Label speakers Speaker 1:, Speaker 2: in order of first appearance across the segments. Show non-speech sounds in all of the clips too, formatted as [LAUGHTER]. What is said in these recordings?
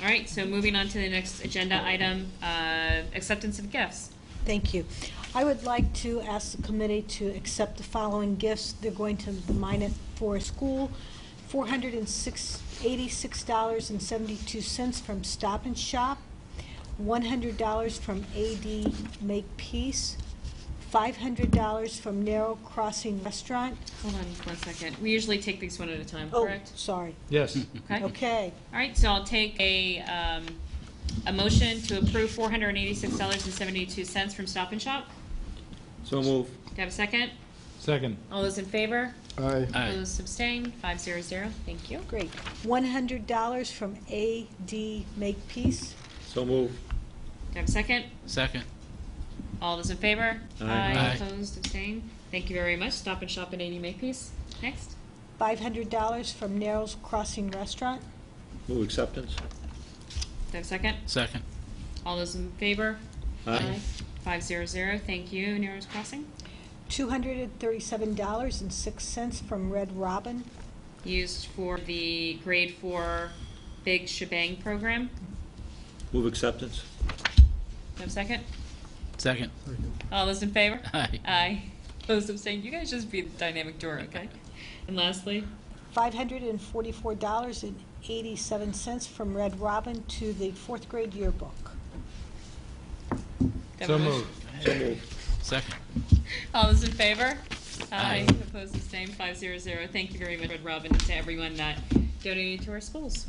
Speaker 1: All right, so moving on to the next agenda item, uh, acceptance of gifts.
Speaker 2: Thank you. I would like to ask the committee to accept the following gifts. They're going to the Minot Forest School, $486.72 from Stop and Shop, $100 from AD Make Peace, $500 from Narrow Crossing Restaurant.
Speaker 1: Hold on one second. We usually take these one at a time,
Speaker 2: Oh,
Speaker 1: correct?
Speaker 2: sorry.
Speaker 3: Yes.
Speaker 1: Okay. All
Speaker 2: Okay.
Speaker 1: right, so I'll take a, um, a motion to approve four hundred and eighty-six dollars and seventy-two cents from Stop and Shop.
Speaker 3: [LAUGHS] So move.
Speaker 1: Do I have a second?
Speaker 3: Second.
Speaker 1: All those in favor?
Speaker 3: Aye.
Speaker 4: Aye.
Speaker 1: Those abstain? Five zero zero. Thank you.
Speaker 2: Great. $100 from AD Make Peace.
Speaker 3: So move.
Speaker 1: Do I have a second?
Speaker 4: Second.
Speaker 1: All those in favor?
Speaker 3: Aye.
Speaker 4: Aye.
Speaker 1: Opposed, abstained? Thank you very much. Stop and Shop and eighty Makepeace. Next.
Speaker 2: $500 from Narrow Crossing Restaurant.
Speaker 3: Move acceptance.
Speaker 1: Do I have a second?
Speaker 4: Second.
Speaker 1: All those in favor?
Speaker 3: Aye.
Speaker 1: Five zero zero, thank you, Narrows Crossing.
Speaker 2: $237.06 from Red Robin.
Speaker 1: Used for the grade four Big Shebang program.
Speaker 3: Move acceptance.
Speaker 1: Do I have a second?
Speaker 4: Second.
Speaker 1: All those in favor?
Speaker 4: Aye.
Speaker 1: Aye. Those abstained, you guys just be the dynamic duo, okay? And lastly,
Speaker 2: $544.87 from Red Robin to the fourth grade yearbook.
Speaker 1: do I have a
Speaker 3: So
Speaker 1: motion?
Speaker 3: move. So move.
Speaker 4: Second.
Speaker 1: All those in favor?
Speaker 4: Aye.
Speaker 1: Opposed, abstained, five zero zero. Thank you very much, Red Robin, and to everyone that donated to our schools.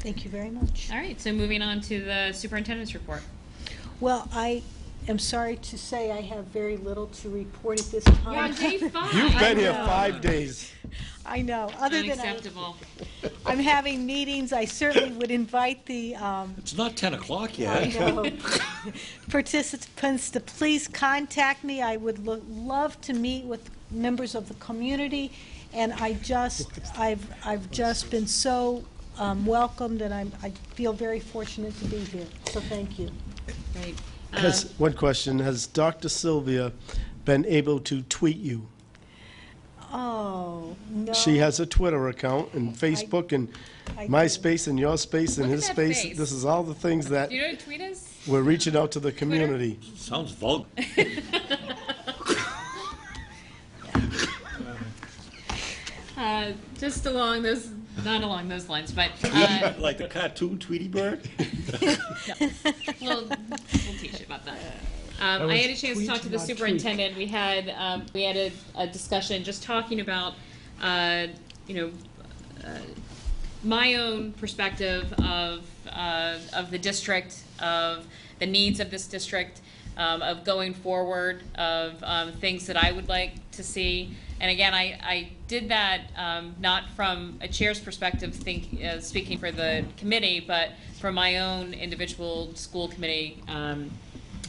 Speaker 2: Thank you very much.
Speaker 1: All right, so moving on to the superintendent's report.
Speaker 2: Well, I am sorry to say I have very little to report at this time.
Speaker 1: [LAUGHS]
Speaker 5: You've been here
Speaker 2: know.
Speaker 5: five days.
Speaker 2: [LAUGHS] I know, other than I-
Speaker 1: Unacceptable.
Speaker 2: I'm having meetings, I certainly would invite the um,
Speaker 5: It's not 10 o'clock
Speaker 2: I
Speaker 5: yet.
Speaker 2: [LAUGHS] know. Participants to please contact me. I would lo- love to meet with members of the community. And I just, I've, I've just been so um, welcomed and I'm, I feel very fortunate to be here. So thank you.
Speaker 1: Right. Uh,
Speaker 6: Has, one question, has Dr. Sylvia been able to tweet you?
Speaker 2: Oh, no.
Speaker 6: She has a Twitter account and Facebook and
Speaker 2: I
Speaker 6: my
Speaker 2: do.
Speaker 6: space and your space and
Speaker 1: Look at
Speaker 6: his
Speaker 1: that
Speaker 6: space.
Speaker 1: face.
Speaker 6: This is all the things that
Speaker 1: Do you know what tweet is?
Speaker 6: we're reaching out to the community.
Speaker 5: Sounds vulgar.
Speaker 1: Uh, just along those, not along those lines, [LAUGHS] but uh,
Speaker 5: [LAUGHS] Like the cartoon Tweety
Speaker 1: [LAUGHS]
Speaker 5: Bird?
Speaker 1: we'll, we'll teach you about that. Um, I had a chance to talk to the superintendent. We had um, we had a, a discussion just talking about uh, you know uh, my own perspective of, uh, of the district, of the needs of this district, um, of going forward, of, um, things that I would like to see. And again, I, I did that, um, not from a chair's perspective, think, uh, speaking for the committee, but from my own individual school committee, um,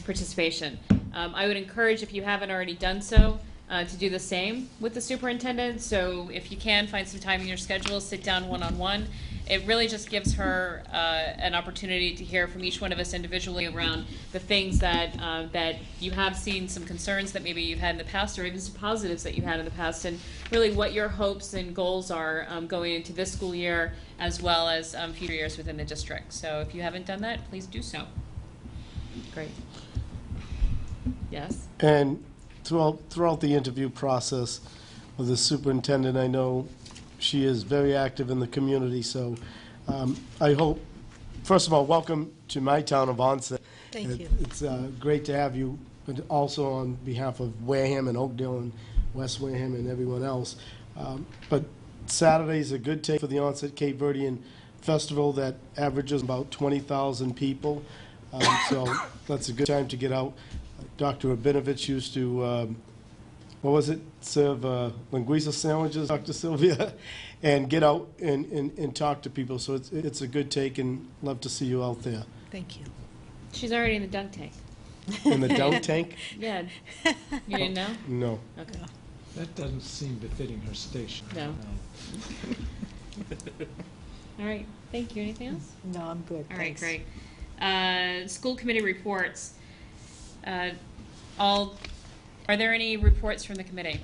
Speaker 1: participation. Um, I would encourage, if you haven't already done so, uh, to do the same with the superintendent. So if you can, find some time in your schedule, sit down one-on-one. It really just gives her uh, an opportunity to hear from each one of us individually around the things that, uh, that you have seen, some concerns that maybe you've had in the past, or even some positives that you had in the past, and really what your hopes and goals are um, going into this school year as well as um, future years within the district. So if you haven't done that, please do so. Great. Yes.
Speaker 6: And throughout, throughout the interview process with the superintendent, I know she is very active in the community, so um, I hope, first of all, welcome to my town of Onset.
Speaker 2: Thank
Speaker 6: It-
Speaker 2: you.
Speaker 6: It's uh, great to have you, but also on behalf of Wareham and Oakdale and West Wareham and everyone else. Um, But Saturday's a good day for the Onset Cape Verdean Festival that averages about 20,000 people, Um, so that's a good time to get out. Dr. Rabinovich used to, um, what was it, serve uh, linguiça sandwiches, Dr. Sylvia, [LAUGHS] and get out and, and and talk to people, so it's, it's a good take, and love to see you out there.
Speaker 2: Thank you. [LAUGHS]
Speaker 1: She's already in the dunk tank.
Speaker 6: In the dunk tank?
Speaker 1: Yeah. You didn't know?
Speaker 6: No.
Speaker 1: Okay.
Speaker 3: That doesn't seem befitting her station.
Speaker 1: No. All right. Thank you. Anything else?
Speaker 2: No, I'm good.
Speaker 1: All right,
Speaker 2: Thanks.
Speaker 1: great. Uh, School committee reports. Uh, All, are there any reports from the committee?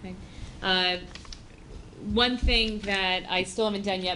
Speaker 1: Okay. Uh, One thing that I still haven't done yet,